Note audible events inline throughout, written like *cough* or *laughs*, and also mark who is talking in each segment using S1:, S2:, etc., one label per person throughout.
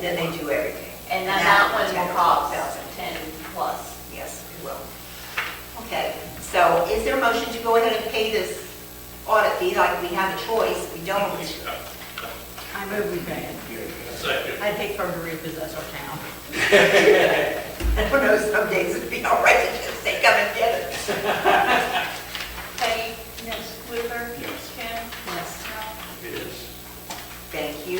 S1: Then they do everything.
S2: And
S1: Now
S2: that that
S1: it's
S2: one
S1: at
S2: will cost
S1: 12,000.
S2: 10 plus.
S1: Yes, it will. Okay, so is there a motion to go ahead and pay this audit fee like we have a choice? We don't.
S3: I move we pay it.
S4: Second.
S3: I think for to repossess our town.
S1: *laughs* I don't know, some days it'd be all right to just say, come and get it.
S5: Peggy? Yes. Whipper?
S4: Yes.
S5: Kim?
S3: Yes.
S5: Ralph?
S4: Yes.
S1: Thank you.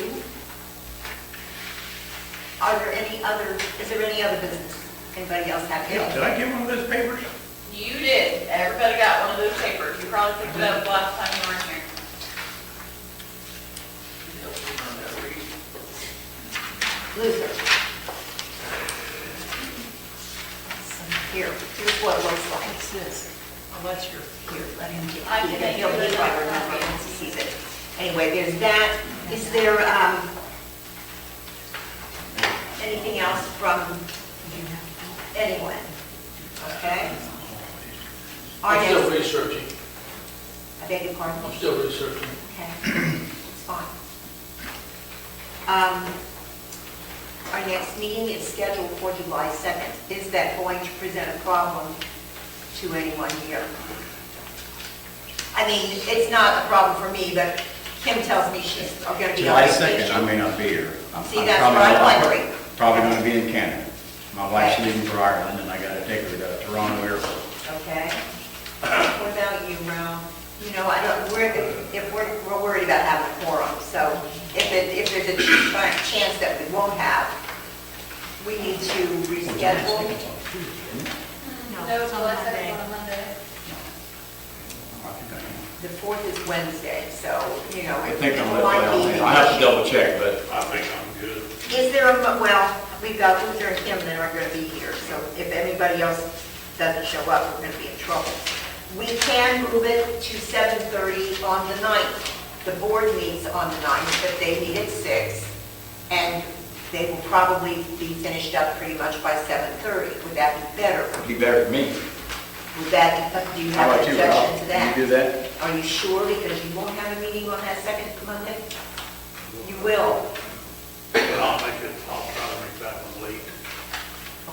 S1: Are there any other, is there any other business? Anybody else have
S4: Did
S1: any?
S4: I get one of those papers?
S2: You did, everybody got one of those papers, you probably picked it up last time you were in here.
S1: Luther? Here, here's what it looks like.
S3: What's this? Oh, What's your, here, let him get.
S2: I
S1: He-
S2: think
S1: he'll
S2: I
S1: be
S2: did.
S1: right around here once he sees it. Anyway, there's that. Is there, um, anything else from anyone? Okay? Are
S6: I'm still
S1: there,
S6: researching,
S1: I beg your pardon?
S6: I'm still researching.
S1: Okay, it's fine. Um, Our next meeting is scheduled for July 2nd. Is that going to present a problem to anyone here? I mean, it's not a problem for me, but Kim tells me she's going to be on
S7: July 2nd, I may
S1: vacation.
S7: not be here. I'm-
S1: See,
S7: I'm
S1: that's
S7: probably
S1: what I'm
S7: not-
S1: wondering.
S7: Probably going to be in Canada. My wife's
S1: Okay.
S7: leaving for Ireland, and I got to take her to Toronto Airport.
S1: Okay? What about you, Ralph? You know, I don't, we're, if we're, we're worried about having a quorum, so if it, if there's a chance that we won't have, we need to reschedule.
S5: No,
S3: it's on
S5: July second,
S3: Monday.
S5: on Monday.
S1: The fourth is Wednesday, so, you know.
S7: I think I'm,
S1: it might be-
S7: I have to double check, but
S4: I think I'm good.
S1: Is there a, mo- well, we've got Luther and Kim that aren't going to be here, so if anybody else doesn't show up, we're going to be in trouble. We can move it to 7:30 on the 9th. The board meets on the 9th, but they meet at 6, and they will probably be finished up pretty much by 7:30. Would that be better?
S7: it'd be better for me.
S1: Would that, do you
S7: How
S1: have an
S7: about you, Rob?
S1: objection to that?
S7: Can you do that?
S1: Are you sure, because you won't have a meeting on that second Monday? You will,
S4: But I'll make it, I'll try to make that one late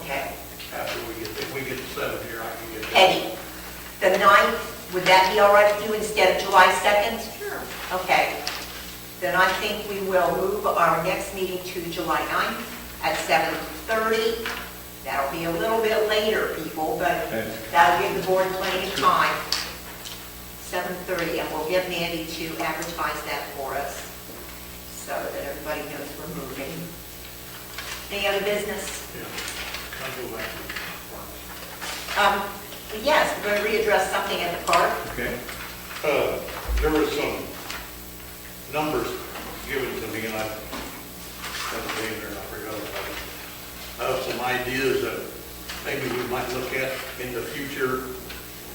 S1: okay.
S4: after we get, if we get to seven here, I can get. that.
S1: Peggy, the ninth, would that be all right with you instead of July 2nd?
S2: Sure.
S1: Okay. Then I think we will move our next meeting to July 9th at 7:30. That'll be a little bit later, people, but
S7: Okay.
S1: that'll give the board plenty of time. 7:30, and we'll get Mandy to advertise that for us so that everybody knows we're moving. Any other business?
S4: Yeah. I'll go back to
S1: Um, Yes, we're going to readdress something at the park.
S7: Okay.
S4: the park. Uh, there was some numbers given to me, and I, that's being there, I forgot about it. Of some ideas that maybe we might look at in the future,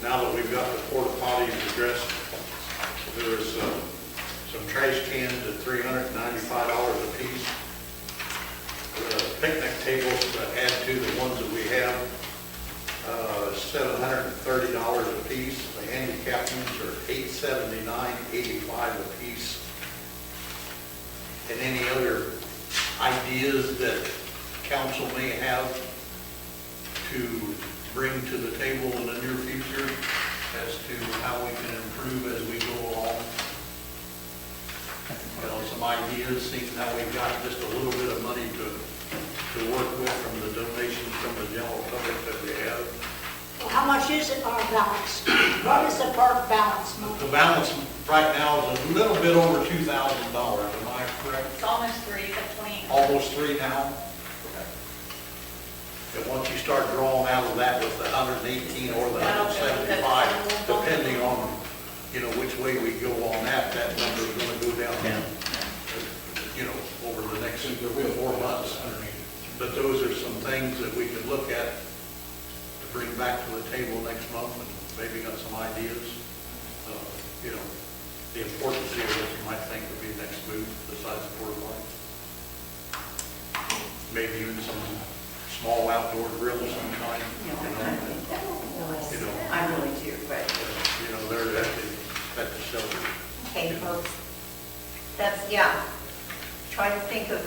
S4: now that we've got the porta potties addressed. There's, uh, some trash cans at three hundred and ninety-five dollars apiece. The picnic tables to add to the ones that we have, uh, seven hundred and thirty dollars apiece. The handicap ones are eight seventy-nine, eighty-five apiece. And any other ideas that council may have to bring to the table in the near future as to how we can improve as we go along? You know, some ideas, seeing how we've got just a little bit of money to, to work with from the donations from the general public that we have.
S8: How much is it, our balance? What is the park balance?
S4: The balance right now is a little bit over two thousand dollars, am I correct?
S2: It's almost three, but 28.
S4: almost three now. And once you start drawing out of that with the hundred and eighteen or the hundred and seventy-five, depending on, you know, which way we go on that, that number's gonna go
S7: Yeah.
S4: down, you know, over the next four months. But those are some things that we could look at to bring back to the table next month and maybe got some ideas of, you know, the importance here that you might think would be the next move besides the porta line maybe even some small outdoor grill of some kind, you know, you know,
S1: I really do, but,
S4: you know, they're at the, at the shelter.
S1: okay, folks, that's, yeah, try to think of